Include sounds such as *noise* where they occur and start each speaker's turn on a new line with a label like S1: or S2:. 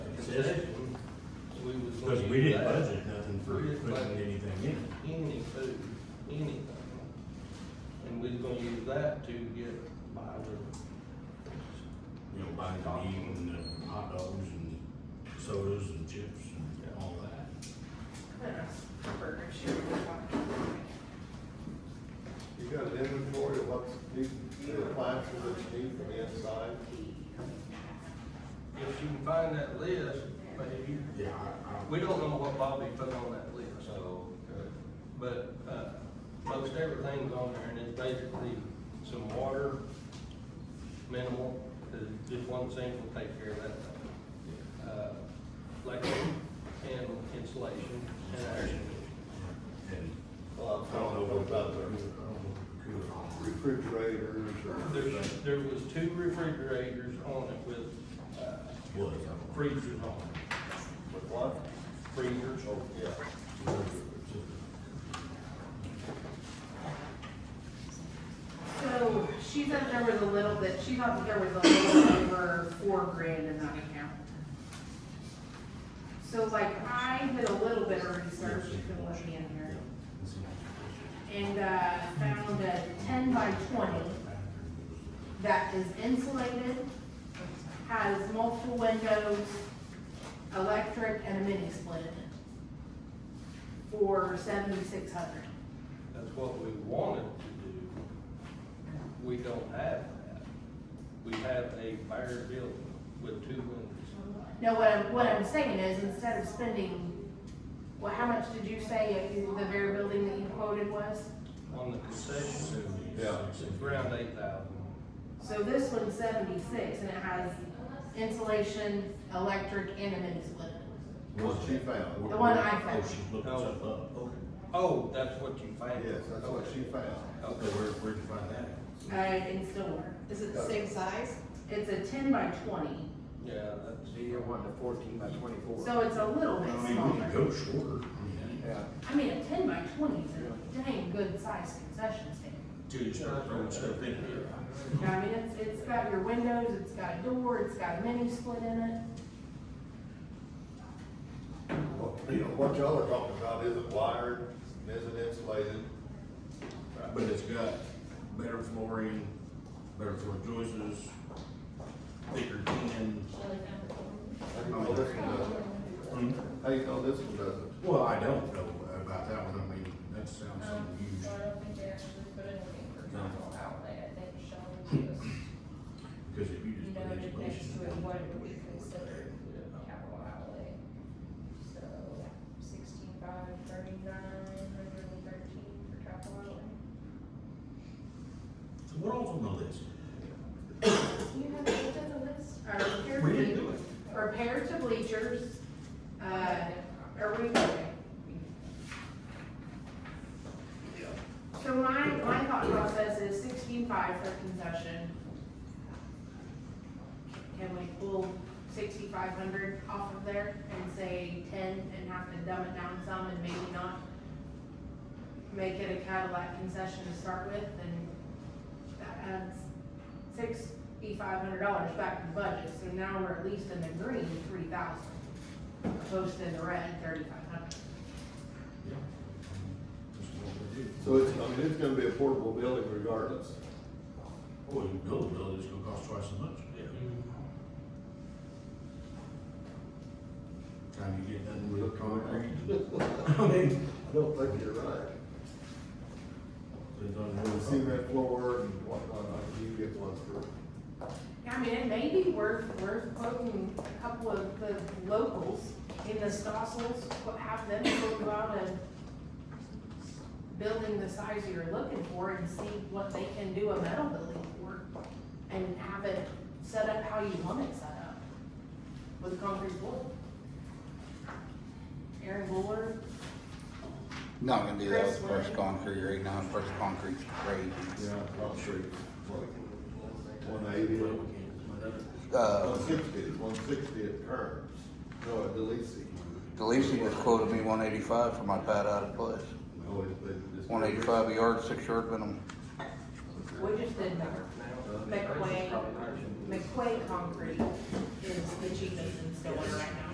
S1: Is it? We was gonna
S2: Because we
S1: use
S2: didn't
S1: that.
S2: budget nothing for
S1: We didn't
S2: putting
S1: budget.
S2: anything in.
S1: Any food, anything. And we was gonna use that to get by with.
S2: You know, buying the meat and the hot dogs and sodas and chips and all that.
S3: Burger shit.
S4: You got an inventory of what's new, new appliances that you need from the inside?
S1: If you can find that list, but if you,
S2: Yeah, I,
S1: we don't know what Bobby put on that list,
S4: So, okay.
S1: but, uh, most everything's on there and it's basically some water, minimal, 'cause just one sink will take care of that. Uh, like, and insulation and air conditioning.
S2: I, and
S4: Well,
S2: I
S4: I
S2: don't know
S4: what about
S2: the- I
S4: the
S2: don't know the computer on the roof.
S4: refrigerators
S1: There's,
S4: or?
S1: there was two refrigerators on it with, uh,
S2: Was, I don't know.
S1: freezers on it,
S4: With what?
S1: freezers.
S4: Oh, yeah.
S3: So she thought there was a little bit, she thought there was a little over four grand in that account. So like I did a little bit of research, you can look in here, and, uh, found a ten by twenty that is insulated, has multiple windows, electric and a mini split for seventy-six hundred.
S1: That's what we wanted to do. We don't have that. We have a bare building with two windows.
S3: No, what I'm, what I'm saying is, instead of spending, well, how much did you say if the very building that you quoted was?
S1: On the concession,
S4: Yeah.
S1: it's around eight thousand.
S3: So this one's seventy-six, and it has insulation, electric, and a mini split.
S4: What she found?
S3: The one I found.
S2: Oh, she looked
S1: Oh.
S2: stuff up. Okay.
S1: Oh, that's what you found?
S4: Yes, that's what she found.
S2: Okay,
S1: Okay.
S2: where, where'd you find that?
S3: Uh, in Stillwater.
S5: Is it the same size?
S3: It's a ten by twenty,
S1: Yeah, that's.
S6: So you're wanting a fourteen by twenty-four?
S3: so it's a little
S2: I
S3: bit
S2: mean, we could
S3: smaller.
S2: go shorter. I mean,
S4: Yeah.
S3: I mean, a ten by twenty is a dang good sized concession stand.
S2: Till you start throwing stuff in here.
S3: You know, I mean, it's, it's got your windows, it's got a door, it's got a mini split in it.
S4: Well, You know, what y'all are talking about isn't wired, isn't insulated.
S2: But it's got better flooring, better floor joists, thicker tin.
S4: How do you know this one doesn't? How do you know this one doesn't?
S2: Well, I don't know about that one, I mean, that sounds
S7: Um,
S2: unusual.
S7: so I don't think they actually put in a
S2: No.
S7: commercial outlet, I think Sean just
S2: Because if you just put
S7: noted next
S2: insulation.
S7: to it what it would be considered
S1: Yeah.
S7: capital outlay. So sixteen-five, thirty-nine, hundred and thirteen for capital outlay.
S2: So what else on the list?
S7: You have looked at the list?
S3: Our repair
S2: We didn't do
S3: team-
S2: it.
S3: Repair to bleachers, uh, are we, so my, my thought process is sixteen-five for concession. Can we pull sixty-five hundred off of there and say ten and have to dumb it down some and maybe not make it a Cadillac concession to start with and that adds sixty-five hundred dollars back to the budget, so now we're at least in the green three thousand, opposed to in the red thirty-five hundred.
S2: Yeah. That's what we do.
S4: So it's, I mean, it's gonna be a portable building regardless.
S2: Well, you build a building, it's gonna cost twice as much.
S1: Yeah.
S2: Time you get done with
S4: *laughs*
S2: concrete. I mean,
S4: I don't think you're right.
S2: it's on
S4: The
S2: the
S4: cement floor and whatnot, I mean, you get one for,
S3: I mean, it may be worth, worth quoting a couple of the locals in the Stossels, qu- have them quote about a building the size you're looking for and see what they can do a metal building for, and have it set up how you want it set up, with concrete floor. Aaron Buller,
S8: Not gonna do that
S3: Chris,
S8: with
S3: what do
S8: first
S3: you-
S8: concrete right now, first concrete's crazy.
S4: yeah, I'm sure, like, one eighty or
S8: Uh,
S4: One sixty, one sixty at current, no, at Delisi.
S8: Delisi just quoted me one eighty-five for my pad out of place.
S4: No, it- it- it's-
S8: One eighty-five a yard, six yard minimum.
S3: we just did that. McQuay, McQuay Concrete is the cheapest in Stillwater right now.